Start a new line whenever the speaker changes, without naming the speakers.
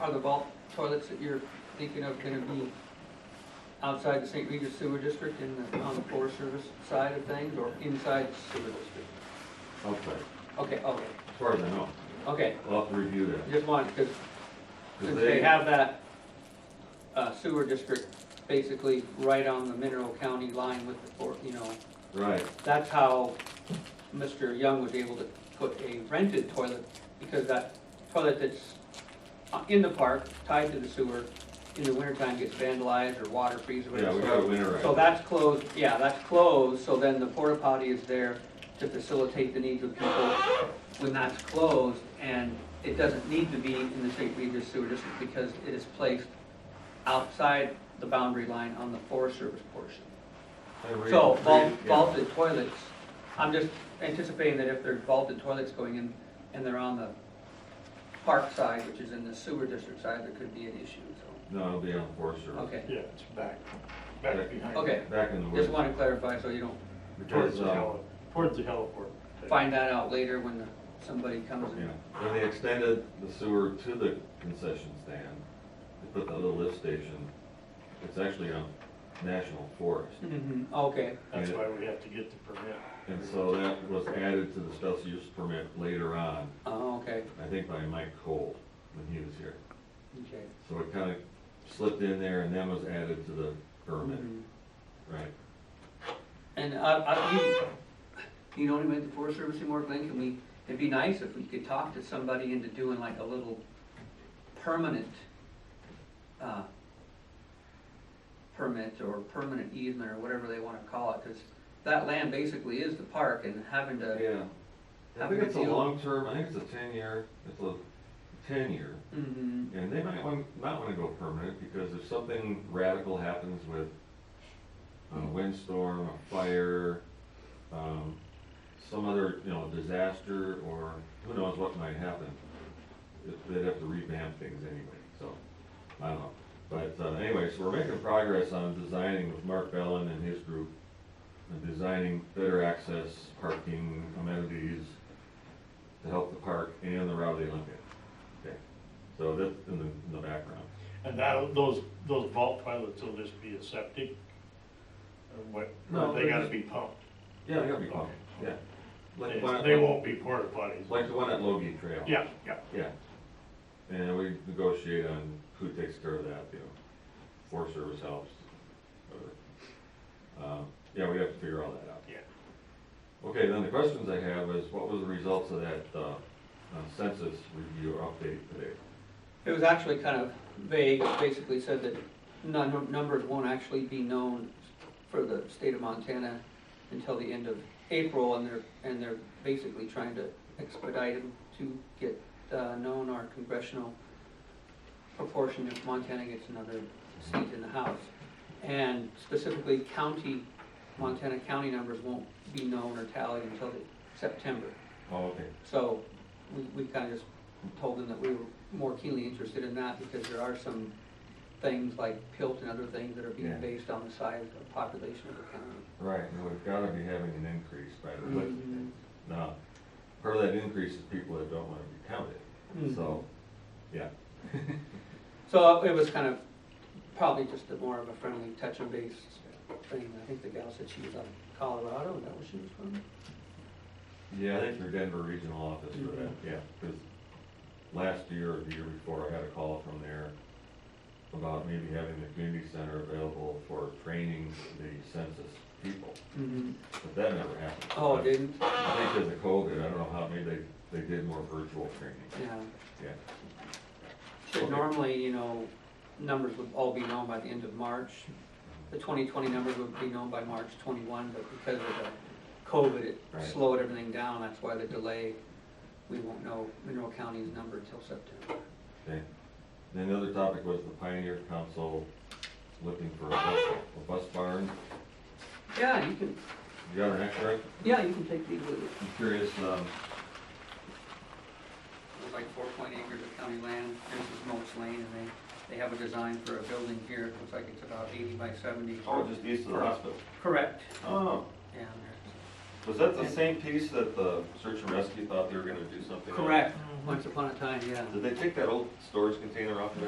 are the vault toilets that you're thinking of gonna be outside the St. Regis Sewer District and the- on the Forest Service side of things, or inside the sewer district?
outside,
Okay, okay,
as far as I know.
okay,
I'll have to review that.
just one, because
'Cause
since they have that uh, sewer district basically right on the Mineral County line with the, for- you know,
Right,
that's how Mr. Young was able to put a rented toilet, because that toilet that's uh, in the park, tied to the sewer, in the wintertime gets vandalized or water freezes. or
yeah,
whatever.
we got a
So
winterizer.
that's closed, yeah, that's closed, so then the porta potty is there to facilitate the needs of people when that's closed, and it doesn't need to be in the St. Regis Sewer District because it is placed outside the boundary line on the Forest Service portion. So vault- vaulted toilets, I'm just anticipating that if there's vaulted toilets going in and they're on the park side, which is in the sewer district side, there could be an issue, so,
No, it'll be on Forest Service.
okay.
Yeah, it's back, back behind.
Okay,
Back in the woods.
just want to clarify so you don't
Towards
Because,
the
uh,
heliport, towards the heliport.
find that out later when the- somebody comes
yeah,
in.
when they extended the sewer to the concession stand, they put that little lift station. It's actually a national forest.
Mhm, Okay,
That's why we have to get the permit.
And so that was added to the special use permit later on,
oh, okay,
I think by Mike Cole, when he was here.
okay.
So it kind of slipped in there and then was added to the permit,
Mhm.
right?
And I, I, you, you don't even have the Forest Service anymore, Glenn, can we, it'd be nice if we could talk to somebody into doing like a little permanent, uh, permit or permanent easement or whatever they wanna call it, cause that land basically is the park and having to,
Yeah. I
Have
think
a
it's a
review.
long term, I think it's a ten year, it's a ten year.
mhm,
And they might want, not want to go permanent, because if something radical happens with a windstorm, a fire, um, some other, you know, disaster, or who knows what might happen, it- they'd have to revamp things anyway, so, I don't know. But uh, anyway, so we're making progress on designing with Mark Bellin and his group, and designing better access, parking, amenities, to help the park and the Rowley Olympic. Okay. So that's in the, in the background.
And that, those, those vault toilets will just be a septic, or what,
No,
they
they're
gotta
just-
be pumped.
Yeah, they gotta be pumped, yeah. Like the one
They
at-
they won't be porta potties.
Like the one at Logie Trail.
Yeah, yeah.
Yeah. And we negotiate on who takes care of that, you know, Forest Service helps, whatever. Um, Yeah, we have to figure all that out.
Yeah.
Okay, then the questions I have is, what was the results of that uh, uh, census review update today?
it was actually kind of vague, It basically said that none, numbers won't actually be known for the state of Montana until the end of April, and they're, and they're basically trying to expedite them to get, uh, known our congressional proportion if Montana gets another seat in the House. And specifically, county, Montana county numbers won't be known or tallied until the September.
Oh, okay.
So we, we kind of just told them that we were more keenly interested in that because there are some things like PILT and other things that are being
Yeah.
based on the size of population of the county.
Right, and we've gotta be having an increase by the budget. Now, part of that increase is people that don't wanna be counted, so, yeah.
Mm-hmm. So it was kind of probably just a more of a friendly touch and base thing. I think the gal said she was out of Colorado, is that where she was from?
Yeah, I think your Denver regional office for that, yeah, because last year or the year before, I had a call from there about maybe having the community center available for training the census people,
Mm-hmm.
but that never happened.
Oh, it didn't?
I think because of COVID, I don't know how, maybe they, they did more virtual training,
Yeah.
yeah.
Should
Okay.
normally, you know, numbers would all be known by the end of March. The twenty twenty numbers would be known by March twenty-one, but because of the COVID, it
Right.
slowed everything down, that's why the delay. We won't know Mineral County's number until September.
Okay. Then the other topic was the Pioneer Council looking for a bus, a bus barn.
Yeah, you can,
You got an extra?
yeah, you can take these with you.
I'm curious, um,
There's like four point acres of county land, this is Moats Lane, and they, they have a design for a building here, it looks like it's about eighty by seventy.
oh, just east of the hospital.
Correct,
Oh,
yeah, there's-
was that the same piece that the search and rescue thought they were gonna do something on?
correct, once upon a time, yeah.
Did they take that old storage container off of